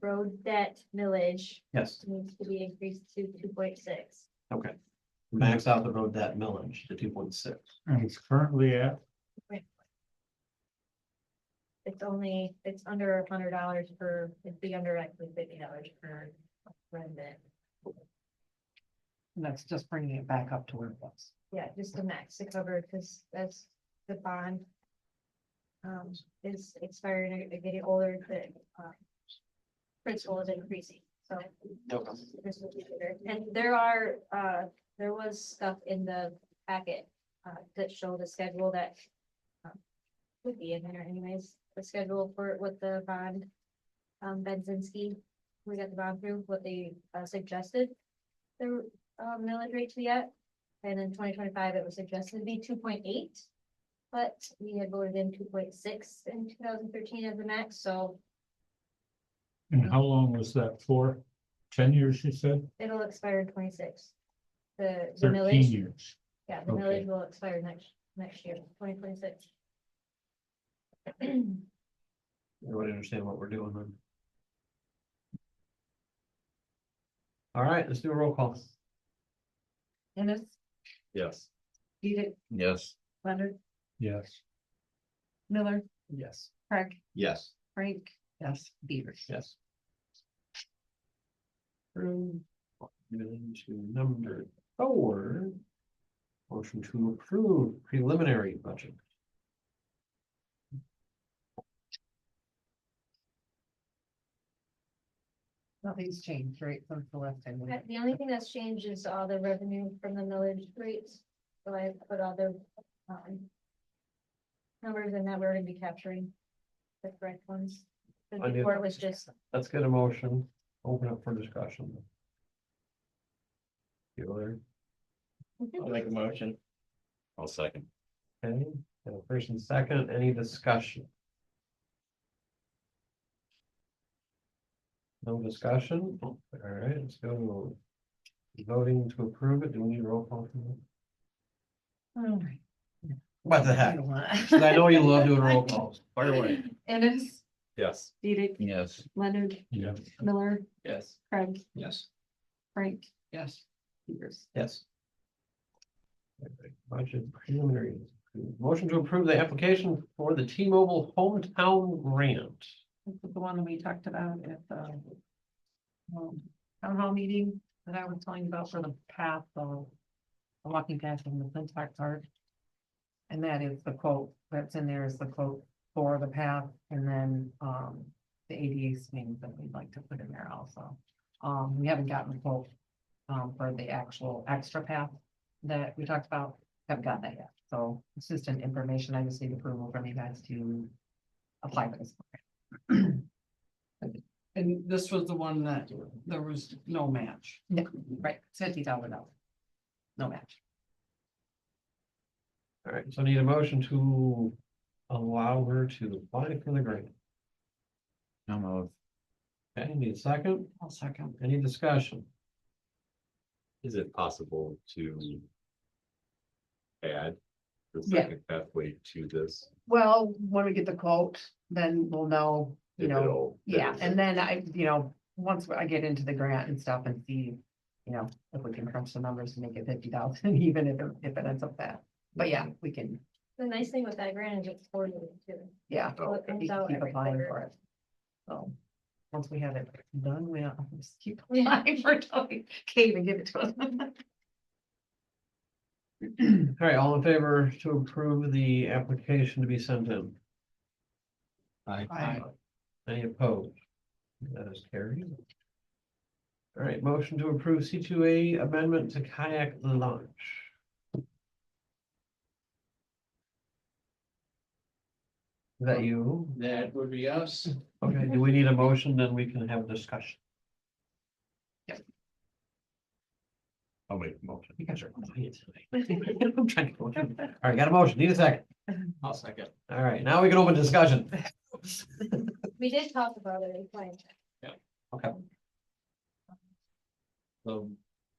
road debt millage Yes, needs to be increased to two point six. okay. Max out the road that millage to two point six. And it's currently at, It's only, it's under a hundred dollars per, it'd be under like fifty dollars per resident. And that's just bringing it back up to where it was. Yeah, just the max to cover, because that's the bond. Um, is expiring, and they're getting older, the, um. Principal is increasing, so. this will be better. And there are, uh, there was stuff in the packet, uh, that showed a schedule that. um, Would be in there anyways, the schedule for what the bond, um, Benzinski, we got the bond through, what they uh, suggested. The, uh millage rate to be at. And in twenty twenty-five, it was suggested to be two point eight. But we had voted in two point six in two thousand thirteen as the max, so and how long was that for? Ten years, you said? it'll expire in twenty-six. The, the Thirteen millage, years. yeah, the okay. millage will expire next, next year, twenty twenty-six. Uh, Everybody understand what we're doing then? All right, let's do a roll call. Dennis, Yes. Edith, Yes. Leonard, Yes. Miller, Yes. Craig, Yes. Frank, yes, Beavers. Yes. Through, moving to number four. Motion to approve preliminary budget. Nothing's changed, right, from the left hand. But The only thing that's changed is all the revenue from the millage rates, so I put all the, um. Numbers in that we're gonna be capturing. The correct ones, But I knew- before it was just Let's get a motion, open up for discussion. You there? I'll make a motion. I'll second. Okay, and a first and second, any discussion? No discussion, all right, let's go to. Voting to approve it, do we need a roll call? for that? All right. What the I heck, Oh, don't want- 'Cause I know you love doing roll calls, Fire away. Dennis, Yes. Edith, Yes. Leonard, Yeah. Miller, Yes. Craig, yes, Frank, Yes. Beavers. yes. Budget preliminary, motion to approve the application for the T-Mobile hometown grant. This is the one that we talked about at the um, town hall meeting that I was telling you about for the path of the walking path from the Flintock Park. And that is the quote, that's in there is the quote for the path and then, um, the ADA swings that we'd like to put in there also. Um, we haven't gotten a quote, um, for the actual extra path that we talked about, haven't gotten that yet. So it's just an information, I just need approval from you guys to apply for this. And this was the one that there was no match. Yeah, right, it's fifty thousand dollars. No match. All right, so I need a motion to allow her to apply for the grant. No move. Okay, need a second? I'll second. Any discussion? Is it possible to? Add? The Yeah. second pathway to this? Well, when we get the quote, then we'll know, you if know, it'll- yeah, and then I, you know, once I get into the grant and stuff and see. You know, if we can crunch the numbers and make it fifty thousand, even if, it- if it ends up that, but yeah, we can, The nice thing with that grant is it's quarterly too. yeah. so it we comes Oh, can out Keep every applying quarter. for it. So, once we have it done, we'll just keep Yeah. applying for it, till we can't even give it to us. All right, all in favor to approve the application to be sent in? Aye. Any opposed? That is carried. All right, motion to approve C two A amendment to kayak launch. Is that you? That would be us. Okay, do we need a motion? Then we can have a discussion. I'll make a motion. You guys are quiet today. I'm trying to. go through. All right, got a motion. Need a second. I'll second. All right, now we can open discussion. We did talk about it, it's fine. So,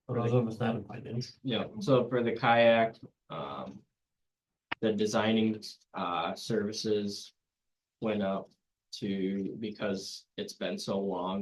For those of us not in finance. yeah, so for the kayak, um. The designing, uh, services went up to, because it's been so long